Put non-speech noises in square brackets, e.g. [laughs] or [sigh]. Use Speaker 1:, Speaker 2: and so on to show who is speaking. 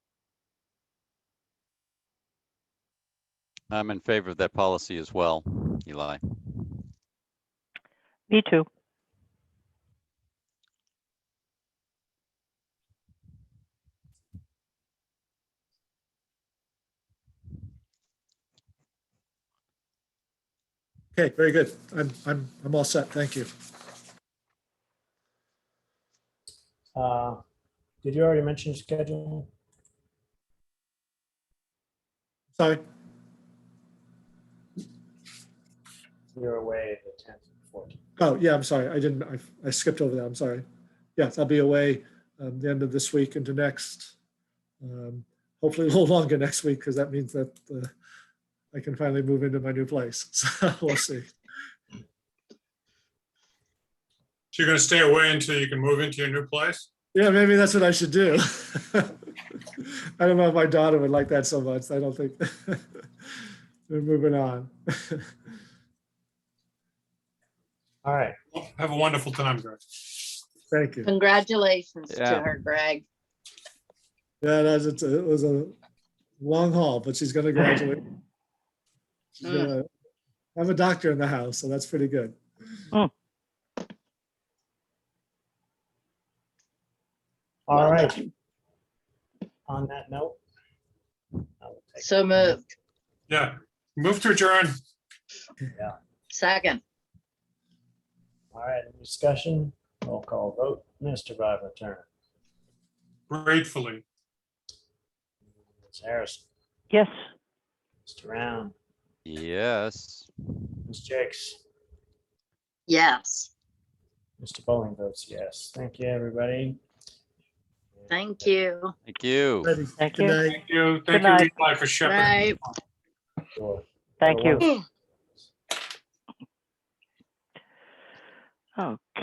Speaker 1: I'm in favor of that policy as well, Eli.
Speaker 2: Me too.
Speaker 3: Okay, very good. I'm, I'm, I'm all set. Thank you.
Speaker 4: Uh, Did you already mention schedule?
Speaker 3: Sorry.
Speaker 4: You're away the tenth and fourteenth.
Speaker 3: Oh, yeah, I'm sorry. I didn't, I, I skipped over that. I'm sorry. Yes, I'll be away um, the end of this week into next. Um, hopefully [laughs] a little longer next week because that means that uh, I can finally move into my new place. [laughs] So we'll see.
Speaker 5: So you're gonna stay away until you can move into your new place?
Speaker 3: Yeah, maybe that's what I should do. [laughs] I don't know if my daughter would like that so much. I don't think. [laughs] We're moving on. [laughs]
Speaker 4: All right,
Speaker 5: Have a wonderful time, guys.
Speaker 3: Thank you.
Speaker 6: Congratulations to
Speaker 1: Yeah.
Speaker 6: her, Greg.
Speaker 3: Yeah, that's, it's a- it was a long haul, but she's gonna graduate. She's
Speaker 6: Mm.
Speaker 3: gonna have a doctor in the house, so that's pretty good.
Speaker 4: all right. On that note. I will take-
Speaker 6: So moved.
Speaker 5: Yeah, move to adjourn.
Speaker 6: Second,
Speaker 4: All right, any discussion, roll call vote, Mr. Bob Turner,
Speaker 5: Gratefully.
Speaker 4: Ms. Harrison,
Speaker 2: Yes.
Speaker 4: Mr. Round,
Speaker 1: Yes.
Speaker 4: Ms. Jakes,
Speaker 6: yes.
Speaker 4: Mr. Bowling votes yes. Thank you, everybody.
Speaker 6: Thank you.
Speaker 1: Thank you.
Speaker 2: Thank you.
Speaker 3: Good night.
Speaker 5: Thank you.
Speaker 2: Good
Speaker 5: Thank you,
Speaker 2: night.
Speaker 5: Eli, for shepherding.
Speaker 6: Right.
Speaker 4: Sure.
Speaker 2: Thank you.
Speaker 4: Otherwise-
Speaker 2: Okay.